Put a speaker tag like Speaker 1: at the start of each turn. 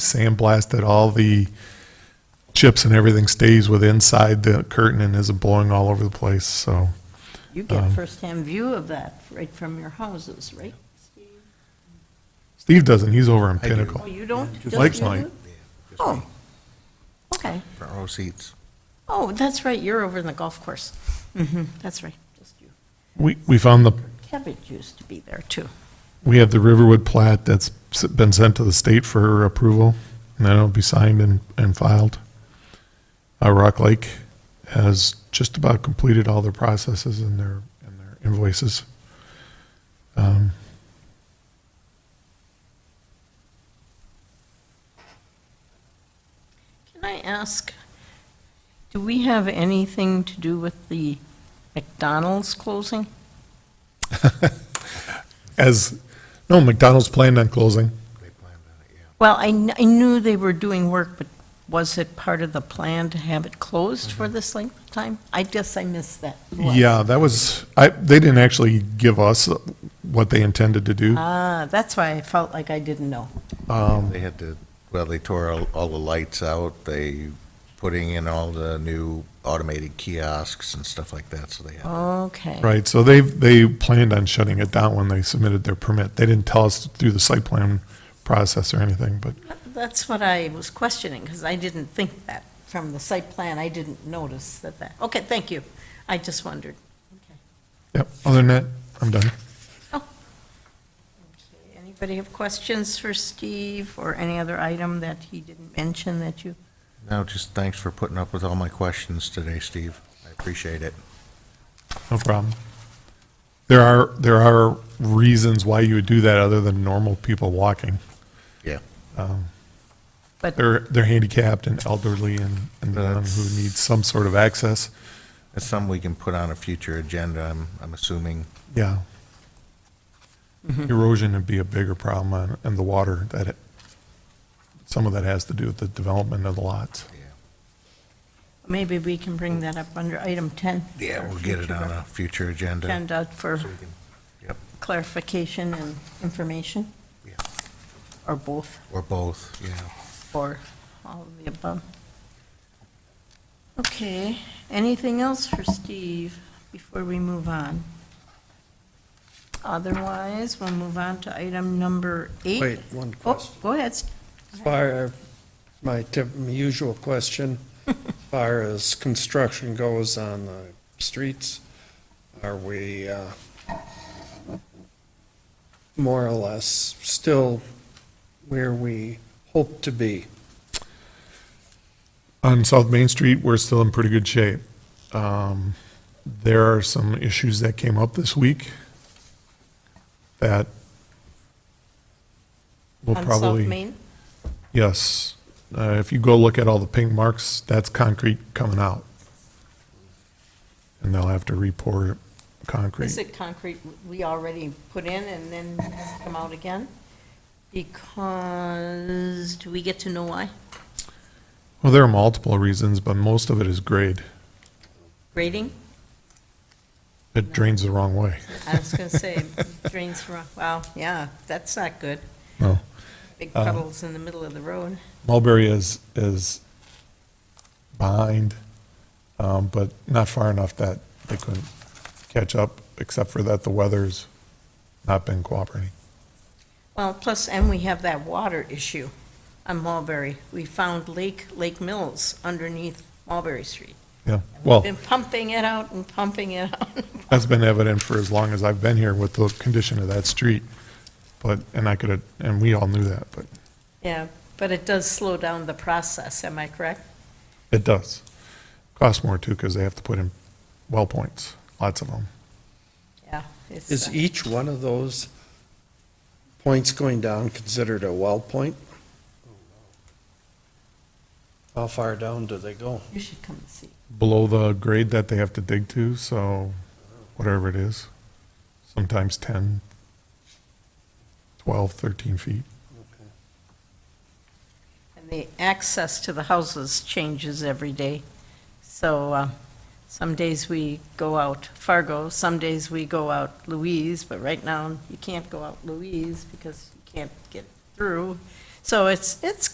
Speaker 1: sandblasted, all the chips and everything stays with inside the curtain and isn't blowing all over the place, so.
Speaker 2: You get
Speaker 1: Um,
Speaker 2: firsthand view of that right from your houses, right?
Speaker 1: Steve doesn't, he's over in
Speaker 3: I do.
Speaker 2: Oh,
Speaker 1: Pinnacle.
Speaker 2: you don't? just
Speaker 1: Mike's
Speaker 2: you
Speaker 1: mine.
Speaker 2: do?
Speaker 3: Just
Speaker 2: Oh,
Speaker 3: me,
Speaker 2: okay.
Speaker 3: For our seats.
Speaker 2: Oh, that's right, you're over in the golf course. hmm that's right, just you.
Speaker 1: We, we found the,
Speaker 2: Cabbage used to be there, too.
Speaker 1: we have the Riverwood plat that's s- been sent to the state for approval, and then it'll be signed and, and filed. Uh, Rock Lake has just about completed all their processes and their, and their invoices. Um,
Speaker 2: Can I ask, do we have anything to do with the McDonald's closing?
Speaker 1: As, no, McDonald's planned on closing.
Speaker 3: They planned on it, yeah.
Speaker 2: Well, I, kn- I knew they were doing work, but was it part of the plan to have it closed for this length of time? I guess I missed that. Was.
Speaker 1: Mm-hmm. Yeah, that was, I, they didn't actually give us what they intended to do. um,
Speaker 2: Ah, that's why I felt like I didn't know.
Speaker 3: They had to, well, they tore all, all the lights out, they putting in all the new automated kiosks and stuff like that, so they had.
Speaker 2: Oh. Okay.
Speaker 1: Right, so they, they planned on shutting it down when they submitted their permit. They didn't tell us through the site plan process or anything, but
Speaker 2: That's what I was questioning, because I didn't think that from the site plan. I didn't notice that that, okay, thank you. I just wondered.
Speaker 1: Yep, other than that, I'm done.
Speaker 2: Okay, Anybody have questions for Steve or any other item that he didn't mention that you?
Speaker 3: No, just thanks for putting up with all my questions today, Steve. I appreciate it.
Speaker 1: No problem. There are, there are reasons why you would do that other than normal people walking.
Speaker 3: Yeah.
Speaker 2: But
Speaker 1: They're, they're handicapped and elderly and, and the one who need some sort of access.
Speaker 3: That's something we can put on a future agenda, I'm, I'm assuming.
Speaker 1: Yeah. Erosion would be a bigger problem on- and the water that it, some of that has to do with the development of the lots.
Speaker 3: Yeah.
Speaker 2: maybe we can bring that up under item 10.
Speaker 3: Yeah,
Speaker 2: for
Speaker 3: we'll get it
Speaker 2: future
Speaker 3: on a future agenda.
Speaker 2: Agenda for
Speaker 3: So we can- Yep,
Speaker 2: clarification and information,
Speaker 3: yeah,
Speaker 2: or both,
Speaker 3: or both, yeah.
Speaker 2: or all of the above. Okay, anything else for Steve before we move on? Otherwise, we'll move on to item number eight.
Speaker 4: Wait, one
Speaker 2: Oh,
Speaker 4: question.
Speaker 2: go ahead. Steve.
Speaker 4: As far, as my typ- my usual question, as far as construction goes on the streets, are we uh, more or less still where we hope to be?
Speaker 1: On South Main Street, we're still in pretty good shape. Um, There are some issues that came up this week that will
Speaker 2: On
Speaker 1: probably.
Speaker 2: South Main?
Speaker 1: Yes. Uh, If you go look at all the pink marks, that's concrete coming out. And they'll have to re-pour concrete.
Speaker 2: Is it concrete we already put in and then come out again? Because, do we get to know why?
Speaker 1: Well, there are multiple reasons, but most of it is grade.
Speaker 2: Grading?
Speaker 1: It drains the wrong way.
Speaker 2: I was going to say drains from, wow, yeah, that's not good.
Speaker 1: No.
Speaker 2: Big puddles in the middle of the road.
Speaker 1: Mulberry is, is behind, um, but not far enough that they couldn't catch up, except for that the weather's not been cooperating.
Speaker 2: Well, plus, and we have that water issue on Mulberry. We found Lake, Lake Mills underneath Mulberry Street.
Speaker 1: Yeah, well,
Speaker 2: Been pumping it out and pumping it out.
Speaker 1: that's been evident for as long as I've been here with the condition of that street. But, and I could, have and we all knew that, but
Speaker 2: Yeah, but it does slow down the process, am I correct?
Speaker 1: it does. Costs more too, because they have to put in well points, lots of them.
Speaker 2: Yeah. it's, uh,
Speaker 4: Is e- each one of those points going down considered a well point? How far down do they go?
Speaker 2: You should come and see.
Speaker 1: below the grade that they have to dig to, so whatever it is, sometimes 10, 12, 13 feet.
Speaker 2: And the access to the houses changes every day. So uh, some days we go out Fargo, some days we go out Louise, but right now you can't go out Louise because you can't get through. So it's, it's